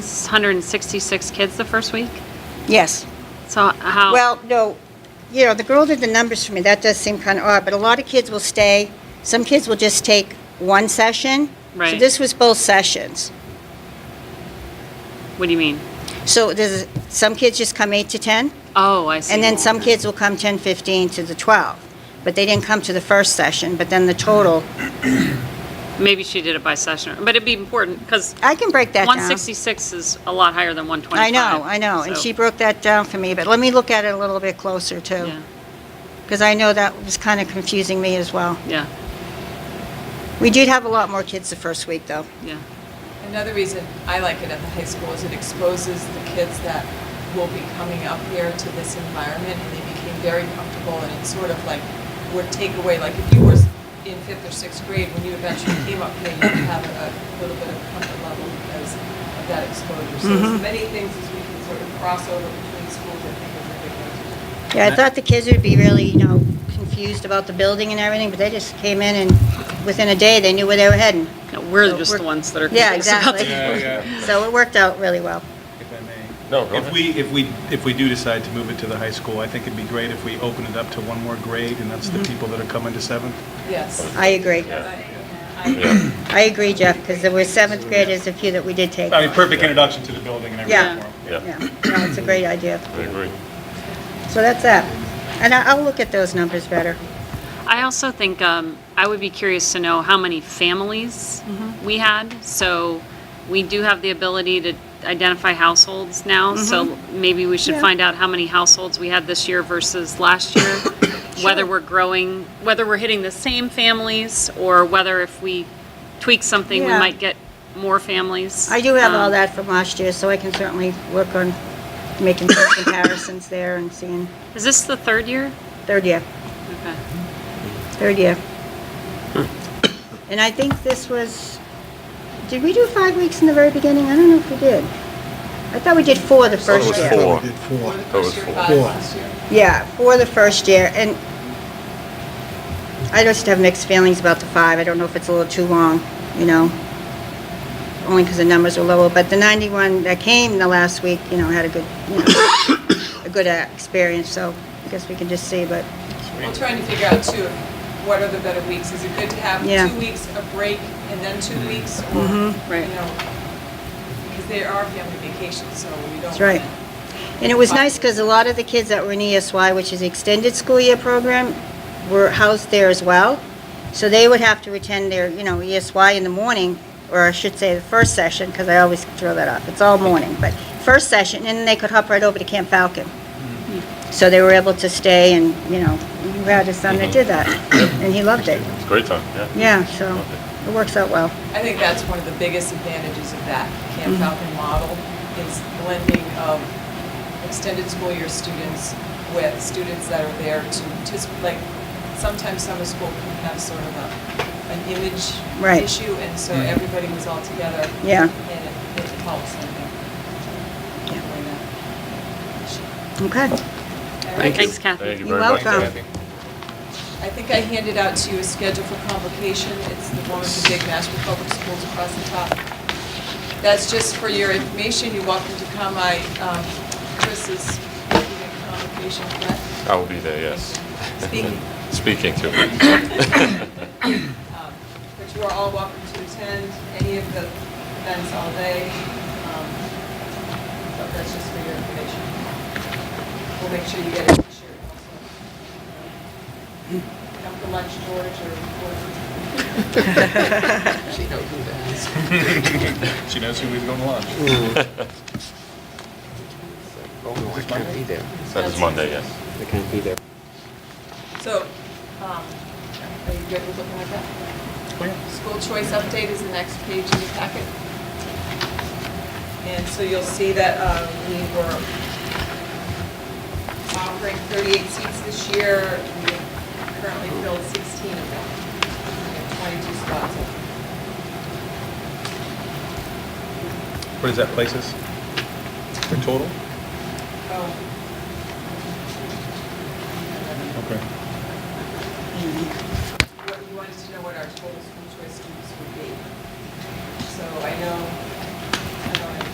166 kids the first week? Yes. So how? Well, no, you know, the girl did the numbers for me. That does seem kind of odd, but a lot of kids will stay. Some kids will just take one session. So Right. this was both sessions. What do you mean? So there's, some kids just come 8 to 10, Oh, I see. and then some kids will come 10, 15 to the 12. But they didn't come to the first session, but then the total, Maybe she did it by session, but it'd be important because I can break that down. 166 is a lot higher than 125. I know, I know, and so- she broke that down for me, but let me look at it a little bit closer too, Yeah, because I know that was kind of confusing me as well. yeah, We did have a lot more kids the first week though. yeah. Another reason I like it at the high school is it exposes the kids that will be coming up here to this environment and they became very comfortable and it's sort of like would take away, like if you were in fifth or sixth grade, when you eventually came up here, you'd have a a little bit of comfort level because of that exposure. So as many things as we can sort of cross over between schools, I think is a big one. Yeah, I thought the kids would be really, you know, confused about the building and everything, but they just came in and within a day, they knew where they were heading. No, We're So just the we're- ones that are. Yeah, confused about exactly. that. Yeah, yeah, So it worked out really well. if I may. No, go If ahead. we, if we, if we do decide to move it to the high school, I think it'd be great if we open it up to one more grade, and that's the people that are coming to seventh. Yes. I agree. Yeah. I agree, Jeff, because there were seventh graders, a few that we did take. I mean, perfect introduction to the building and everything. Yeah. for 'em. Yeah, Yeah, no, it's a great idea. I agree. So that's that. And I- I'll look at those numbers better. I also think um, I would be curious to know how many families Mm-hmm. we had. So we do have the ability to identify households now. So maybe we should Mm-hmm. Yeah. find out how many households we had this year versus last year. Whether we're growing, whether we're hitting the same families, or whether if we tweak something, we Yeah. might get more families. I do have all Um, that from last year, so I can certainly work on making some comparisons there and seeing, Is this the third year? third year, Okay. third year. Hmm. And I think this was, did we do five weeks in the very beginning? I don't know if we did. I thought we did four the thought it first was year. four. We did four. Or the That was first year, full. five Cool. last year. Yeah, for the first year, and I just have mixed feelings about the five. I don't know if it's a little too long, you know, only because the numbers are lower, but the 91 that came the last week, you know, had a good, you know, a good uh, experience, so I guess we can just see, but, We're trying to figure out too, what are the better weeks? Is it good to have Yeah. Mm-hmm. two weeks of break and then two weeks or, you Right. know? Because there are family vacations, so we don't. That's right. wanna- and it was nice because a lot of the kids that were in ESY, which is the Extended School Year Program, were housed there as well, so they would have to attend their, you know, ESY in the morning, or I should say the first session, because I always throw that off, it's all morning, but first session, and then they could hop right over to Camp Falcon. Hmm. So they were able to stay and, you know, you had a son that did that, and he loved it. It's a great time, yeah. Yeah, so Mm-hmm. Loved it. it works out well. I think that's one of the biggest advantages of that Camp Mm-hmm. Falcon model is blending of extended school year students with students that are there to, just like, sometimes summer school can have sort of a, an image Right. issue, and so Mm-hmm. everybody was all together. Yeah. And it- it helps, I think. Doing that. Okay. Thank you. Thanks, Kathy. Thank you You're very much. welcome. Kathy. I think I handed out to you a schedule for convocation. It's the one with the big Mashpee Public Schools across the top. That's just for your information. You're welcome to come. I, um, Chris is speaking at convocation, correct? I will be there, yes. Speaking. Speaking to Um, But you are all welcome to attend any of the events all day. Um, But that's just for your information. We'll make sure you get it shared also. Come for lunch, George, or... or- She knows who that is. She knows who is going to lunch. Oh, no, I can't be there. That is Monday, yes. I can't be there. So, um, are you good with looking like that? Oh, yeah. School choice update is the next page in your packet. And so you'll see that uh, we were offering 38 seats this year. We currently filled 16 of them. We have 22 spots. What is that, places? For total? Oh. Okay. what, you wanted to know what our total school choice students would be. So I know